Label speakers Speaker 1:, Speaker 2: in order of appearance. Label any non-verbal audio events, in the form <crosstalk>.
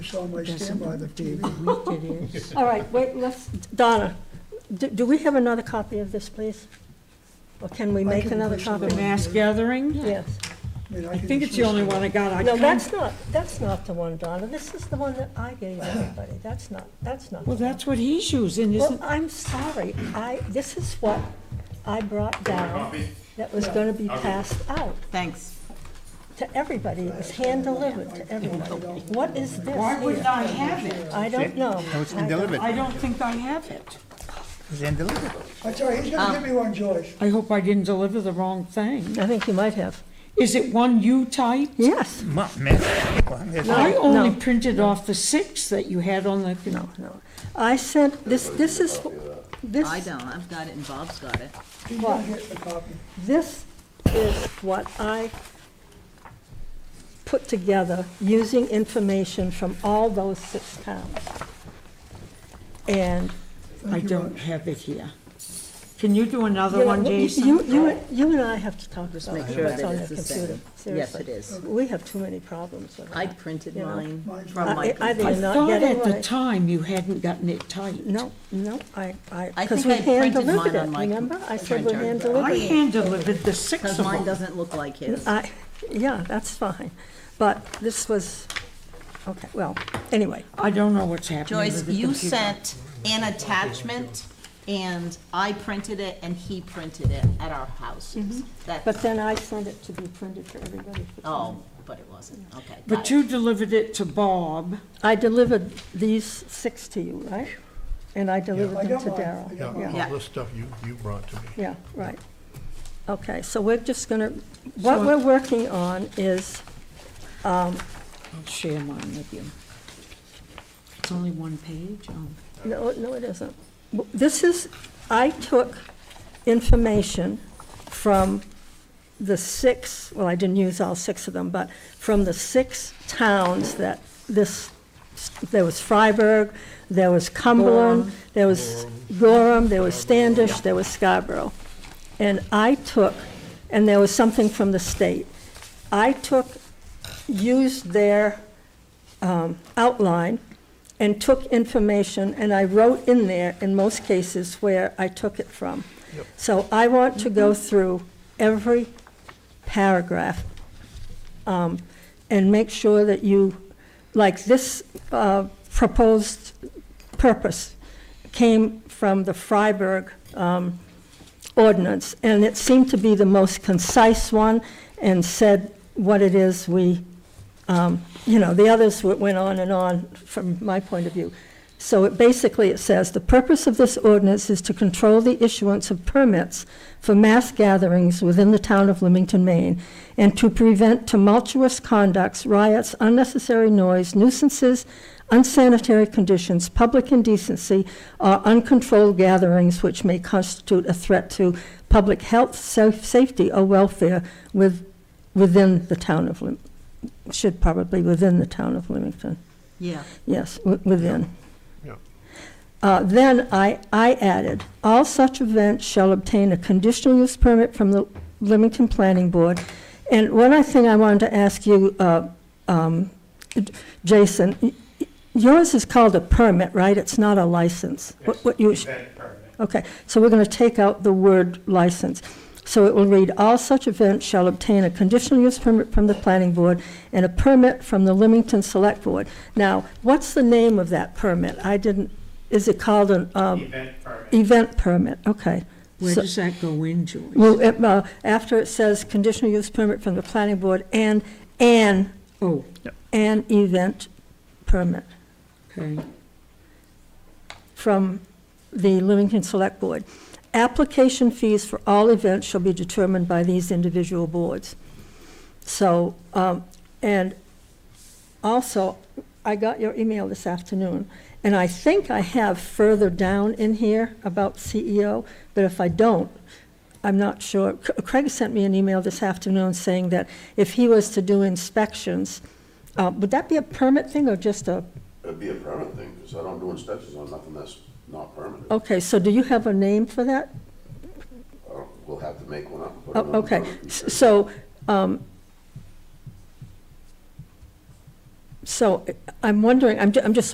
Speaker 1: saw my
Speaker 2: Doesn't
Speaker 1: standby, the
Speaker 3: <laughs>
Speaker 1: TV.
Speaker 2: look weak it is.
Speaker 3: All right, wait, let's, Donna, do, do we have another copy of this, please? Or can we
Speaker 1: I
Speaker 3: make
Speaker 1: can
Speaker 3: another
Speaker 1: place it
Speaker 3: copy?
Speaker 2: The mass gathering?
Speaker 3: Yes.
Speaker 1: mean,
Speaker 2: I
Speaker 1: can
Speaker 2: think it's the
Speaker 1: just
Speaker 2: only
Speaker 1: list
Speaker 2: one I got. I
Speaker 3: No,
Speaker 2: can't-
Speaker 3: that's not, that's not the one, Donna. This is the one that I gave everybody. That's not, that's not.
Speaker 2: Well,
Speaker 3: the one.
Speaker 2: that's what he's using,
Speaker 3: Well,
Speaker 2: isn't,
Speaker 3: I'm sorry, I, this is what I brought down
Speaker 4: Copy?
Speaker 3: that was gonna be passed out
Speaker 5: Thanks.
Speaker 3: to everybody. It was hand-delivered to everyone. What is this
Speaker 2: why wouldn't
Speaker 3: here?
Speaker 2: I have it?
Speaker 3: I don't know.
Speaker 6: No, it's been
Speaker 3: I don't-
Speaker 6: delivered.
Speaker 2: I don't think I have it.
Speaker 6: It's been delivered.
Speaker 1: I tell you, he's
Speaker 2: Um,
Speaker 1: gonna give me one, Joyce.
Speaker 2: I hope I didn't deliver the wrong thing.
Speaker 3: I think you might have.
Speaker 2: Is it one you typed?
Speaker 3: Yes,
Speaker 6: Ma- man, well, yes.
Speaker 2: I only
Speaker 3: no.
Speaker 2: printed off the six that you had on the,
Speaker 3: no, no. I sent, this, this is, this.
Speaker 5: I don't, I've got it and Bob's got it.
Speaker 1: He's gonna get the copy.
Speaker 3: This is what I put together using information from all those six towns. And,
Speaker 2: I don't have it here. Can you do another
Speaker 3: you know,
Speaker 2: one,
Speaker 3: you,
Speaker 2: Jason?
Speaker 3: you- you, you and I have to talk about
Speaker 5: make sure
Speaker 3: what's
Speaker 5: that
Speaker 3: on the
Speaker 5: it's the
Speaker 3: computer,
Speaker 5: same. Yes,
Speaker 3: seriously.
Speaker 5: it is.
Speaker 3: We have too many problems with
Speaker 5: I
Speaker 3: that.
Speaker 5: printed
Speaker 3: You know,
Speaker 5: mine
Speaker 1: mine's
Speaker 5: from
Speaker 3: I-
Speaker 5: my.
Speaker 3: I
Speaker 5: computer.
Speaker 3: did
Speaker 2: I
Speaker 3: not
Speaker 2: thought
Speaker 3: get it
Speaker 2: at the
Speaker 3: right.
Speaker 2: time you hadn't gotten it typed.
Speaker 3: No, no, I, I,
Speaker 5: I
Speaker 3: because we
Speaker 5: think I
Speaker 3: hand
Speaker 5: printed
Speaker 3: delivered
Speaker 5: mine on
Speaker 3: it,
Speaker 5: my
Speaker 3: remember? I said we
Speaker 5: printer.
Speaker 3: hand
Speaker 2: I
Speaker 3: delivered it.
Speaker 2: hand delivered the six
Speaker 5: Because
Speaker 2: of
Speaker 5: mine
Speaker 2: them.
Speaker 5: doesn't look like his.
Speaker 2: Uh,
Speaker 3: I, yeah, that's fine, but this was, okay, well, anyway.
Speaker 2: I don't know what's happening
Speaker 5: Joyce,
Speaker 2: with the
Speaker 5: you
Speaker 2: computer.
Speaker 5: sent an attachment and I printed it and he printed it at our houses.
Speaker 2: Mm-hmm.
Speaker 5: That,
Speaker 3: But then I sent it to be printed for everybody. for
Speaker 5: oh,
Speaker 3: signing.
Speaker 5: but it wasn't, okay. got
Speaker 2: But
Speaker 5: it.
Speaker 2: you delivered it to Bob.
Speaker 3: I delivered these six to you, right? And I delivered
Speaker 1: I
Speaker 3: them
Speaker 1: got
Speaker 3: to
Speaker 1: mine. I
Speaker 3: Daryl.
Speaker 1: got mine.
Speaker 5: Yeah.
Speaker 4: all this stuff you, you brought to me.
Speaker 3: Yeah, right. Okay, so we're just gonna, what we're working on is,
Speaker 2: I'll share mine with you. It's only one page, oh.
Speaker 3: no, no, it isn't. This is, I took information from the six, well, I didn't use all six of them, but from the six towns that this, there was Freiburg, there was Cumberland, there was Gorham, there was Standish, there was Scarborough. And I took, and there was something from the state. I took, used their um, outline and took information, and I wrote in there, in most cases, where I took it from. So I want to go through every paragraph um, and make sure that you, like this uh, proposed purpose came from the Freiburg um, ordinance, and it seemed to be the most concise one and said what it is we, um, you know, the others w- went on and on from my point of view. So it basically, it says, "The purpose of this ordinance is to control the issuance of permits for mass gatherings within the town of Leamington, Maine, and to prevent tumultuous conducts, riots, unnecessary noise, nuisances, unsanitary conditions, public indecency, or uncontrolled gatherings which may constitute a threat to public health, sa- safety, or welfare with, within the town of Leam, should probably within the town of Leamington.
Speaker 5: Yeah.
Speaker 3: Yes, wi- within.
Speaker 4: Yeah.
Speaker 3: Uh, Then I, I added, all such events shall obtain a conditional use permit from the Leamington Planning Board. And one other thing I wanted to ask you, uh, um, Jason, y- y- yours is called a permit, right? It's not a license? What- What you,
Speaker 7: Event permit.
Speaker 3: Okay, so we're going to take out the word license. So it will read, "All such events shall obtain a conditional use permit from the planning board and a permit from the Leamington Select Board." Now, what's the name of that permit? I didn't, is it called an um,
Speaker 7: Event permit.
Speaker 3: event permit? Okay.
Speaker 2: Where
Speaker 3: So-
Speaker 2: does that go in, Joyce?
Speaker 3: Well, it, uh, after it says conditional use permit from the planning board and, an
Speaker 2: Oh,
Speaker 3: an event permit
Speaker 2: okay.
Speaker 3: from the Leamington Select Board. Application fees for all events shall be determined by these individual boards. So, um, and also, I got your email this afternoon, and I think I have further down in here about CEO, but if I don't, I'm not sure. C- Craig sent me an email this afternoon saying that if he was to do inspections, uh, would that be a permit thing or just a,
Speaker 8: It'd be a permit thing, because I don't do inspections on nothing that's not permitted.
Speaker 3: okay, so do you have a name for that?
Speaker 8: I don't- Uh, We'll have to make one up. and put it on
Speaker 3: Oh,
Speaker 8: the
Speaker 3: Okay,
Speaker 8: permit.
Speaker 3: S- so, um, So I'm wondering, I'm, ju- I'm just